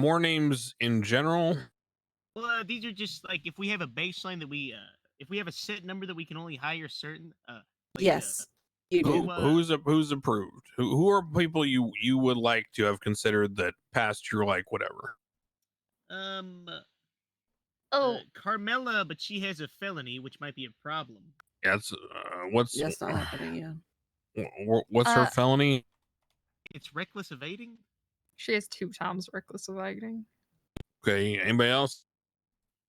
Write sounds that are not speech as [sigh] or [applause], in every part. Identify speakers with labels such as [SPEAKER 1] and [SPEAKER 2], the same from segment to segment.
[SPEAKER 1] more names in general.
[SPEAKER 2] Well, uh, these are just like if we have a baseline that we, uh, if we have a set number that we can only hire certain. Uh, like, uh,
[SPEAKER 3] yes, you do.
[SPEAKER 1] Who,
[SPEAKER 2] uh,
[SPEAKER 1] who's a- who's approved? Who, who are people you you would like to have considered that passed your like whatever?
[SPEAKER 2] um. uh,
[SPEAKER 4] Oh,
[SPEAKER 2] Carmela, but she has a felony, which might be a problem.
[SPEAKER 1] That's uh, what's
[SPEAKER 3] That's not happening. Yeah.
[SPEAKER 1] wh- wh- what's her
[SPEAKER 4] Uh,
[SPEAKER 1] felony?
[SPEAKER 2] It's reckless evading.
[SPEAKER 4] she has two times reckless awakening.
[SPEAKER 1] Okay, anybody else?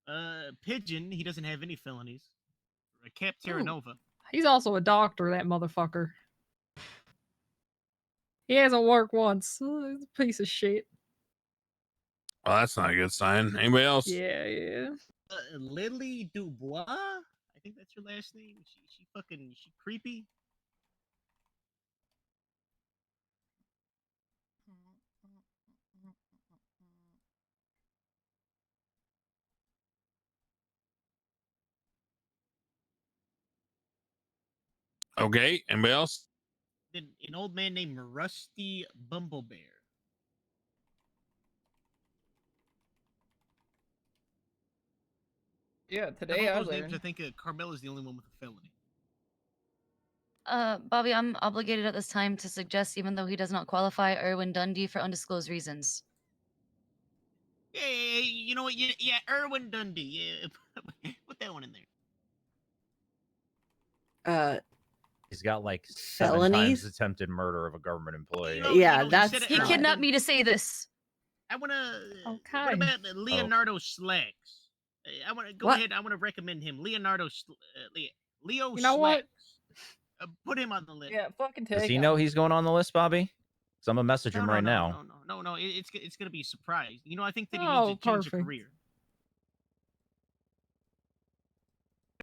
[SPEAKER 2] Uh, Pigeon, he doesn't have any felonies. Uh, Cap
[SPEAKER 3] Ooh.
[SPEAKER 2] Terra Nova.
[SPEAKER 4] He's also a doctor, that motherfucker. He hasn't worked once. Uh, He's a piece of shit.
[SPEAKER 1] Oh, that's not a good sign. Anybody else?
[SPEAKER 4] Yeah, yeah.
[SPEAKER 2] Uh, Lily Dubois. I think that's her last name. She she fucking she creepy.
[SPEAKER 1] Okay, anybody else?
[SPEAKER 2] Then an old man named Rusty Bumblebear.
[SPEAKER 5] Yeah,
[SPEAKER 2] Out of
[SPEAKER 5] today I
[SPEAKER 2] all those names,
[SPEAKER 5] learned.
[SPEAKER 2] I think uh, Carmela's the only one with a felony.
[SPEAKER 6] Uh, Bobby, I'm obligated at this time to suggest, even though he does not qualify, Erwin Dundee for undisclosed reasons.
[SPEAKER 2] Yeah, yeah, yeah, you know what? Yeah, yeah, Erwin Dundee. Yeah, [laughs] put that one in there.
[SPEAKER 3] Uh,
[SPEAKER 7] He's got like seven
[SPEAKER 3] Felonies?
[SPEAKER 7] times attempted murder of a government
[SPEAKER 2] You
[SPEAKER 7] employee.
[SPEAKER 2] know-
[SPEAKER 3] yeah,
[SPEAKER 2] you know, he
[SPEAKER 3] that's
[SPEAKER 2] said it
[SPEAKER 6] He
[SPEAKER 2] No, I
[SPEAKER 3] not-
[SPEAKER 6] kidnapped me to [laughs] say this.
[SPEAKER 2] I want to.
[SPEAKER 4] Okay.
[SPEAKER 2] What about uh, Leonardo Slacks? Uh, I want to go
[SPEAKER 3] What?
[SPEAKER 2] ahead. I want to recommend him. Leonardo Sl- uh, Le- Leo
[SPEAKER 4] You know what?
[SPEAKER 2] Slacks. Uh, put him on the list.
[SPEAKER 5] Yeah, fucking take.
[SPEAKER 7] Does he
[SPEAKER 5] him.
[SPEAKER 7] know he's going on the list, Bobby? Because I'm gonna message
[SPEAKER 2] No,
[SPEAKER 7] him
[SPEAKER 2] no,
[SPEAKER 7] right
[SPEAKER 2] no,
[SPEAKER 7] now.
[SPEAKER 2] No, no, no, no. It, it's g- it's gonna be a surprise. You know, I think that he
[SPEAKER 4] Oh,
[SPEAKER 2] needs to change a
[SPEAKER 4] perfect.
[SPEAKER 2] career.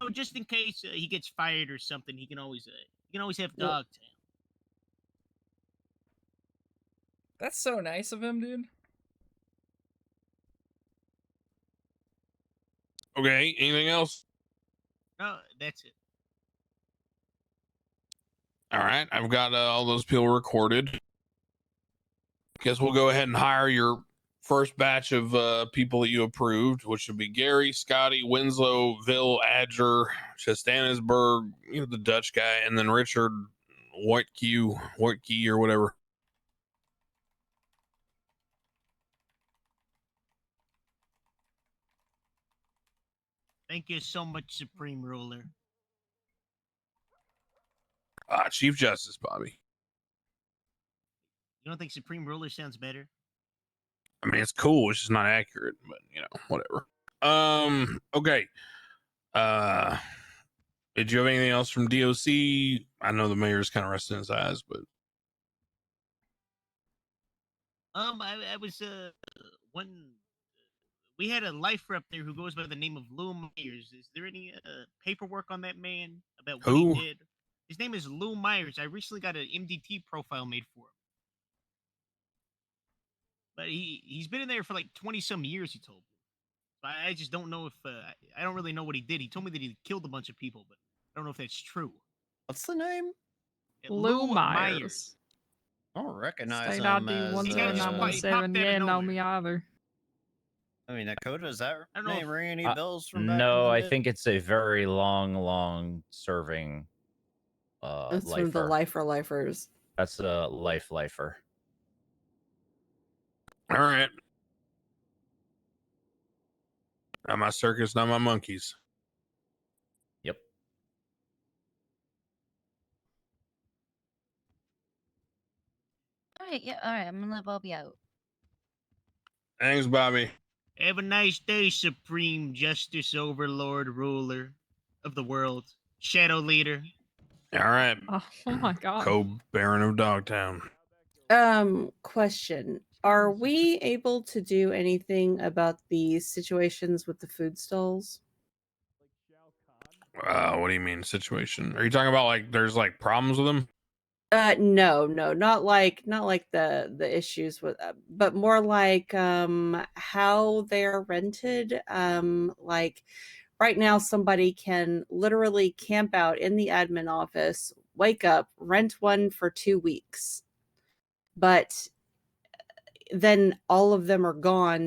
[SPEAKER 2] So just in case uh, he gets fired or something, he can always uh, he can always have
[SPEAKER 3] Well-
[SPEAKER 2] dog tail.
[SPEAKER 5] That's so nice of him, dude.
[SPEAKER 1] Okay, anything else?
[SPEAKER 2] No, that's it.
[SPEAKER 1] All right, I've got uh, all those people recorded. Guess we'll go ahead and hire your first batch of uh, people that you approved, which would be Gary, Scotty, Winslow, Vil, Adger, Chastanisberg, you know the Dutch guy, and then Richard Whitekey, Whitekey or whatever.
[SPEAKER 2] Thank you so much, Supreme Ruler.
[SPEAKER 1] Uh, Chief Justice Bobby.
[SPEAKER 2] You don't think Supreme Ruler sounds better?
[SPEAKER 1] I mean, it's cool. It's just not accurate, but you know, whatever. Um. Okay. Uh. Did you have anything else from DOC? I know the mayor's kind of resting his eyes, but
[SPEAKER 2] Um, I, I was uh one. We had a lifer up there who goes by the name of Lou Myers. Is there any uh, paperwork on that man about what
[SPEAKER 1] Who?
[SPEAKER 2] he did? His name is Lou Myers. I recently got an MDT profile made for him. But he he's been in there for like twenty some years. He told me. But I just don't know if uh, I- I don't really know what he did. He told me that he killed a bunch of people, but I don't know if that's true.
[SPEAKER 8] What's the name?
[SPEAKER 2] Uh,
[SPEAKER 4] Lou Myers.
[SPEAKER 8] I don't recognize
[SPEAKER 4] State ID
[SPEAKER 8] him as.
[SPEAKER 4] one
[SPEAKER 2] He got
[SPEAKER 4] seven
[SPEAKER 2] his
[SPEAKER 4] nine
[SPEAKER 2] spot-
[SPEAKER 4] one
[SPEAKER 2] he
[SPEAKER 8] Uh,
[SPEAKER 2] popped
[SPEAKER 4] seven.
[SPEAKER 2] out of
[SPEAKER 4] Yeah, no
[SPEAKER 2] nowhere.
[SPEAKER 4] me either. [laughs]
[SPEAKER 8] I mean, Dakota, is that
[SPEAKER 2] I don't know
[SPEAKER 8] name
[SPEAKER 2] if-
[SPEAKER 8] ring any
[SPEAKER 7] Uh,
[SPEAKER 8] bells from back in
[SPEAKER 7] No,
[SPEAKER 8] the
[SPEAKER 7] I
[SPEAKER 8] day?
[SPEAKER 7] think it's a very long, long serving uh
[SPEAKER 3] That's from the lifer
[SPEAKER 7] lifer.
[SPEAKER 3] lifers.
[SPEAKER 7] That's a life lifer.
[SPEAKER 1] all right. Not my circus, not my monkeys.
[SPEAKER 7] Yep.
[SPEAKER 6] All right, yeah, all right. I'm gonna let Bobby out.
[SPEAKER 1] Thanks, Bobby.
[SPEAKER 2] Have a nice day, Supreme Justice Overlord Ruler of the world, Shadow Leader.
[SPEAKER 1] All right,
[SPEAKER 4] Oh, oh my god.
[SPEAKER 1] co-baron of Dogtown.
[SPEAKER 3] Um, question: Are we able to do anything about the situations with the food stalls?
[SPEAKER 1] Uh, what do you mean situation? Are you talking about like there's like problems with them?
[SPEAKER 3] Uh, no, no, not like not like the the issues with, uh, but more like um how they're rented. Um, like right now, somebody can literally camp out in the admin office, wake up, rent one for two weeks, but then eh, all of them are gone